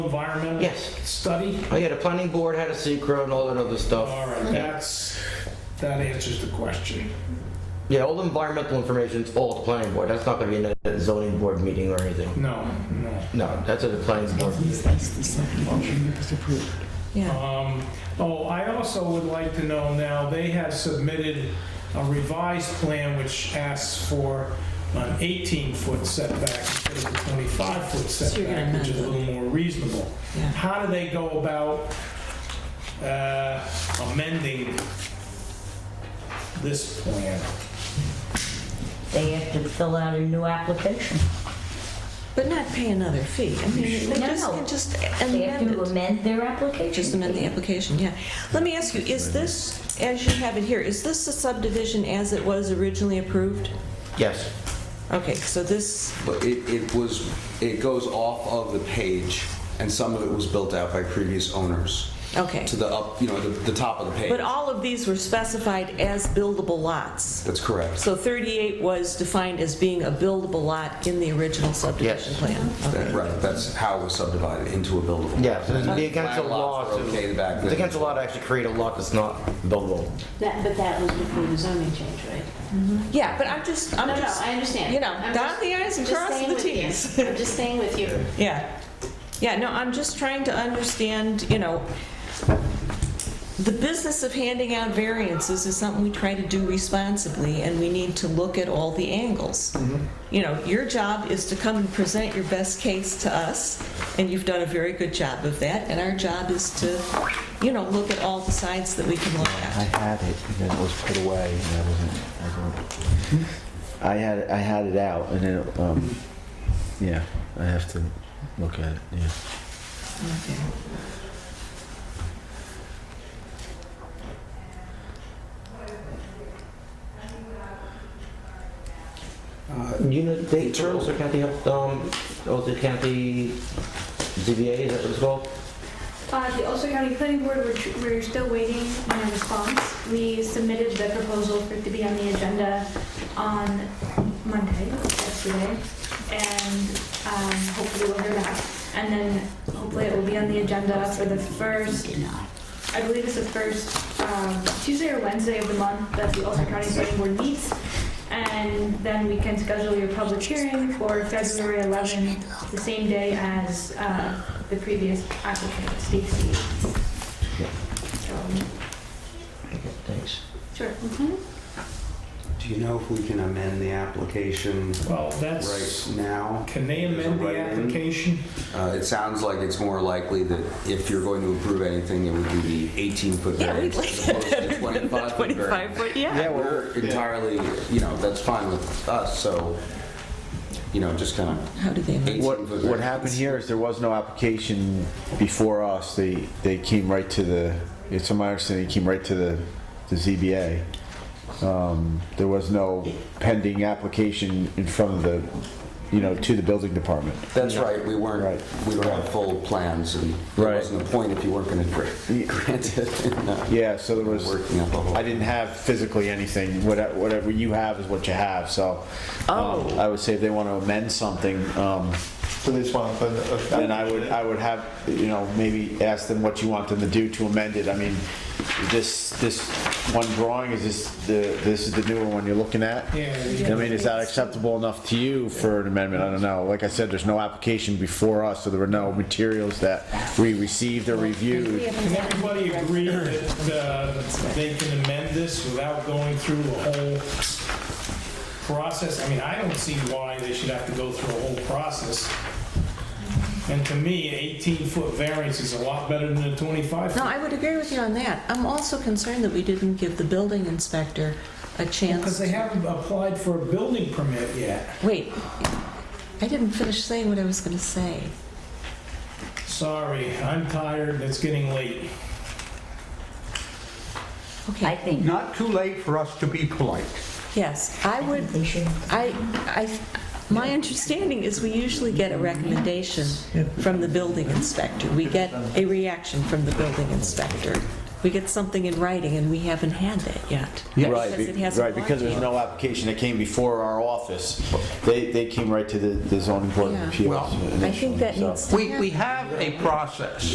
environmental Yes. study? Oh yeah, the planning board had a secret and all that other All stuff. right, that's, that answers the question. Yeah, all the environmental information is all the planning board. That's not gonna be in a zoning board meeting or anything. No, no. No, that's at the planning board. Yeah, Um, Oh, I also would like to know now, they have submitted a revised plan which asks for an 18-foot setback instead of a 25-foot you're gonna setback, which is a amend little more reasonable. yeah. How do they go about uh, amending this plan? They have to fill out a new application. But not pay another fee. I mean, they No. just, can just They have amend to it. amend their application. Just amend the application, yeah. Let me ask you, is this, as you have it here, is this a subdivision as it was originally approved? Yes. Okay, so this, But it, it was, it goes off of the page, and some of it was built out by previous owners okay. to the up, you know, the, the top of the page. But all of these were specified as buildable lots. That's correct. So 38 was defined as being a buildable lot in the original subdivision Yes. plan. Uh-huh. That- Okay. Right, that's how it was subdivided into a buildable. Yeah, so And it'd be then against the flag lots law were to, Okay, the back. it's against the law to actually create a lot that's not buildable. That, but that was before the zoning change, right? Yeah, but I'm just, I'm No, no, just, I understand. you know, I'm dot just- the i's and just cross staying the with you. t's. I'm just staying with you. Yeah. Yeah, no, I'm just trying to understand, you know, the business of handing out variances is something we try to do responsibly, and we need to look at all the angles. Mm-hmm. You know, your job is to come and present your best case to us, and you've done a very good job of that, and our job is to, you know, look at all the sides that we can look I at. had it, and then it was put away, and I wasn't. I, don't, I had I had it out, and then it, um, yeah, I have to look at it. Yeah. Uh, You know, they, Ulster County, um, Ulster County ZBA, is that what it's called? Uh, The Ulster County Planning Board, we're- we're still waiting on a response. We submitted the proposal for it to be on the agenda on Monday, yesterday, and um, hopefully we'll hear back. And then hopefully it will be on the agenda for the first, I believe it's the first um, Tuesday or Wednesday of the month that the Ulster County Planning Board meets. And then we can schedule your public hearing for February 11, the same day as uh, the previous applicant, Steve Steve. So, Thanks. Sure. Do you know if we can amend the application Well, right that's, now? can they amend the application? Uh, it sounds like it's more likely that if you're going to approve anything, it would be the 18-foot Yeah, we'd variance like as that opposed to better than the 25-foot variance. 25-foot, yeah. We're entirely, you know, that's fine with us, so, you know, just kind of How do they amend? What what happened here is there was no application before us. They they came right to the. It's my understanding they came right to the the ZBA. Um, there was no pending application in front of the, you know, to the building department. That's right, we weren't, Right. we don't have full plans, and there Right. wasn't a point if you weren't going to grant it. No, Yeah, so there was. Working up a whole. I didn't have physically anything. Whatever, whatever you have is what you have. So, um, I would say if they want to amend something, um, So they just want to put a- a- then I would, I would have, you know, maybe ask them what you want them to do to amend it. I mean, this, this one drawing is this the, this is the newer one you're looking at. Yeah. I mean, is that acceptable enough to you for an amendment? I don't know. Like I said, there's no application before us, so there were no materials that we received or reviewed. Can everybody agree that uh, they can amend this without going through a whole process? I mean, I don't see why they should have to go through a whole process. And to me, 18-foot variance is a lot better than a 25. No, I would agree with you on that. I'm also concerned that we didn't give the building inspector a Because chance. they haven't applied for a building permit yet. Wait, I didn't finish saying what I was going to say. Sorry, I'm tired, and it's getting late. I Okay, think Not too late for us to be polite. yes, I would, they should. I, I, my understanding is we usually get a recommendation from the building inspector. We get a reaction from the building inspector. we get something in writing, and we haven't had that yet. Right, Because it be- hasn't right, gone because there's yet. no application that came before our office. They, they came right to the the zoning board of Yeah. appeals Well, initially. I think that so. needs to We, happen. we have a process.